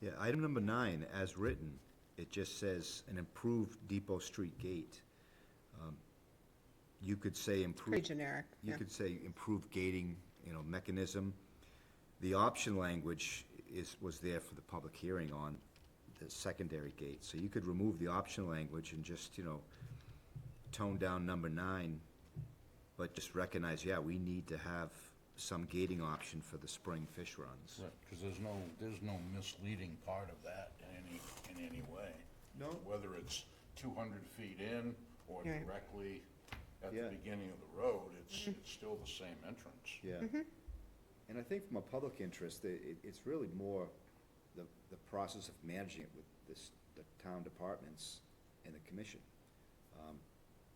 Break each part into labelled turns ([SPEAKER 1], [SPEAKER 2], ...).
[SPEAKER 1] Yeah, item number nine, as written, it just says an improved Depot Street gate. Um, You could say
[SPEAKER 2] Pretty
[SPEAKER 1] improved,
[SPEAKER 2] generic,
[SPEAKER 1] you
[SPEAKER 2] yeah.
[SPEAKER 1] could say improved gating, you know, mechanism. The option language is, was there for the public hearing on the secondary gate, so you could remove the option language and just, you know, tone down number nine, but just recognize, yeah, we need to have some gating option for the spring fish runs.
[SPEAKER 3] Because there's no, there's no misleading part of that in any, in any way.
[SPEAKER 1] No.
[SPEAKER 3] Whether it's two hundred feet in or
[SPEAKER 2] Right.
[SPEAKER 3] directly at
[SPEAKER 1] Yeah. Mm-hmm.
[SPEAKER 3] the beginning of the road, it's, it's still the same entrance.
[SPEAKER 1] Yeah. And I think from a public interest, i- it, it's really more the, the process of managing it with this, the town departments and the commission. Um,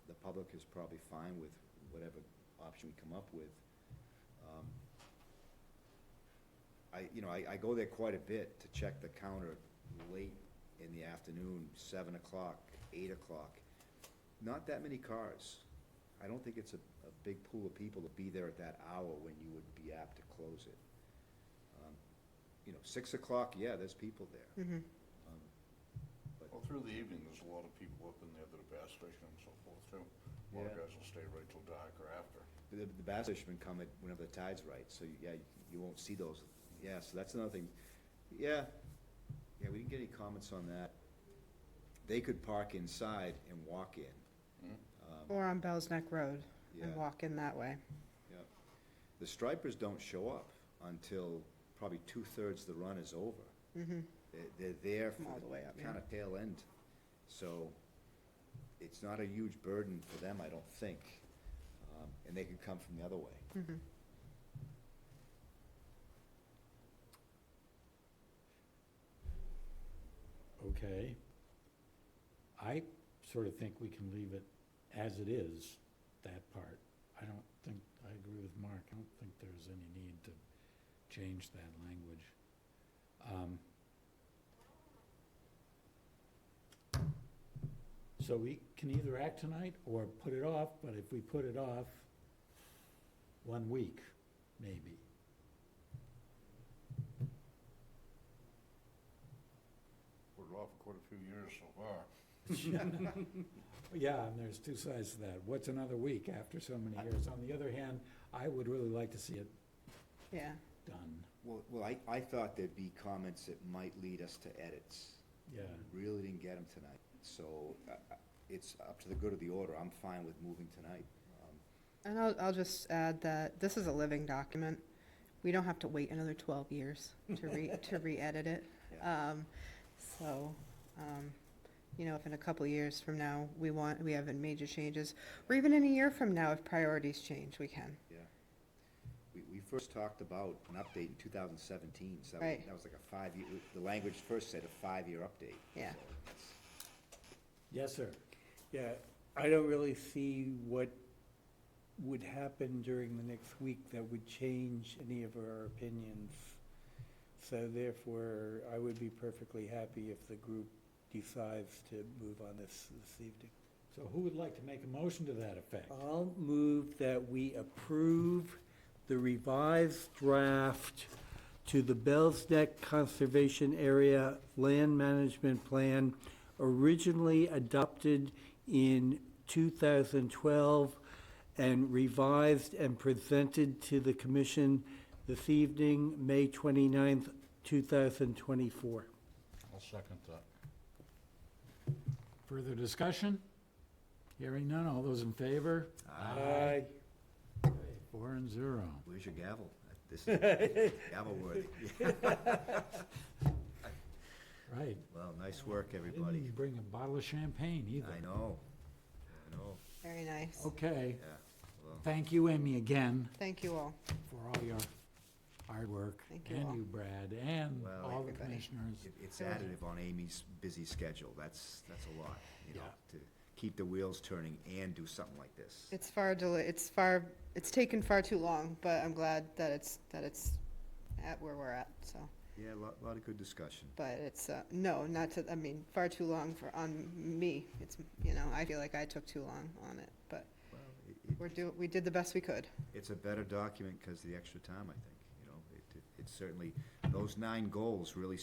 [SPEAKER 1] The public is probably fine with whatever option we come up with. Um, I, you know, I, I go there quite a bit to check the counter late in the afternoon, seven o'clock, eight o'clock. Not that many cars. I don't think it's a, a big pool of people to be there at that hour when you would be apt to close it. Um, You know, six o'clock, yeah, there's people there. Um,
[SPEAKER 3] Well, through the evening, there's a lot of people up in there that are gas station and so forth too. A lot of
[SPEAKER 1] Yeah.
[SPEAKER 3] guys will stay right till dark or after.
[SPEAKER 2] Hmm.
[SPEAKER 1] The, the bass fishermen come at whenever the tide's right, so yeah, you- you won't see those. Yeah, so that's another thing. Yeah, yeah, we didn't get any comments on that. They could park inside and walk in. Um,
[SPEAKER 2] Or on Bell's Neck Road
[SPEAKER 1] Yeah.
[SPEAKER 2] and walk in that way.
[SPEAKER 1] Yep. The stripers don't show up until probably two-thirds of the run is over.
[SPEAKER 2] Mm-hmm,
[SPEAKER 1] They're, they're there for
[SPEAKER 2] From all the way up, yeah.
[SPEAKER 1] Kind of tail end. So it's not a huge burden for them, I don't think. Um, And they could come from the other way.
[SPEAKER 2] mm-hmm.
[SPEAKER 4] Okay. I sort of think we can leave it as it is, that part. I don't think, I agree with Mark, I don't think there's any need to change that language. Um, So we can either act tonight or put it off, but if we put it off, one week, maybe.
[SPEAKER 3] Put it off for quite a few years so far.
[SPEAKER 4] Yeah, and there's two sides to that. What's another week after so many years? On the other hand, I would really like to see it
[SPEAKER 2] Yeah,
[SPEAKER 4] done.
[SPEAKER 1] Well, well, I, I thought there'd be comments that might lead us to edits.
[SPEAKER 4] Yeah,
[SPEAKER 1] Really didn't get them tonight. So uh, uh, it's up to the good of the order. I'm fine with moving tonight. Um,
[SPEAKER 2] and I'll, I'll just add that this is a living document. We don't have to wait another twelve years to re, to re-edit it.
[SPEAKER 1] yeah.
[SPEAKER 2] Um, so, um, you know, if in a couple of years from now, we want, we have major changes, or even in a year from now, if priorities change, we can.
[SPEAKER 1] Yeah. We, we first talked about an update in two thousand seventeen, so that was-
[SPEAKER 2] Right.
[SPEAKER 1] that was like a five-year, the language first said a five-year update.
[SPEAKER 2] Yeah.
[SPEAKER 1] So it's-
[SPEAKER 4] yes, sir.
[SPEAKER 5] Yeah, I don't really see what would happen during the next week that would change any of our opinions. So therefore, I would be perfectly happy if the group decides to move on this this evening.
[SPEAKER 4] So who would like to make a motion to that effect?
[SPEAKER 1] Uh,
[SPEAKER 5] I'll move that we approve the revised draft to the Bell's Neck Conservation Area Land Management Plan originally adopted in 2012 and revised and presented to the commission this evening, May 29th, 2024.
[SPEAKER 3] I'll second that.
[SPEAKER 4] Further discussion? Hearing none, all those in favor?
[SPEAKER 5] Aye.
[SPEAKER 4] Four and zero.
[SPEAKER 1] Where's your gavel? This is gavel worthy.
[SPEAKER 4] Right.
[SPEAKER 1] Well, nice work,
[SPEAKER 4] Didn't
[SPEAKER 1] everybody.
[SPEAKER 4] you bring a bottle of champagne either?
[SPEAKER 1] I know, I know,
[SPEAKER 2] Very nice.
[SPEAKER 4] Okay,
[SPEAKER 1] yeah, well,
[SPEAKER 4] thank you, Amy, again,
[SPEAKER 2] Thank you all.
[SPEAKER 4] for all your hard work.
[SPEAKER 2] Thank you all.
[SPEAKER 4] And you, Brad, and
[SPEAKER 1] Well,
[SPEAKER 4] all the
[SPEAKER 2] everybody.
[SPEAKER 4] commissioners.
[SPEAKER 1] it- it's additive on Amy's busy schedule. That's, that's a lot, you know,
[SPEAKER 4] Yeah.
[SPEAKER 1] to keep the wheels turning and do something like this.
[SPEAKER 2] It's far delay, it's far, it's taken far too long, but I'm glad that it's, that it's at where we're at, so.
[SPEAKER 1] Yeah, a lot, lot of good discussion.
[SPEAKER 2] But it's, uh, no, not to, I mean, far too long for, on me. It's, you know, I feel like I took too long on it, but
[SPEAKER 1] Well, it- it-
[SPEAKER 2] we're do, we did the best we could.
[SPEAKER 1] it's a better document because of the extra time, I think, you know. It- it- It's certainly, those nine goals really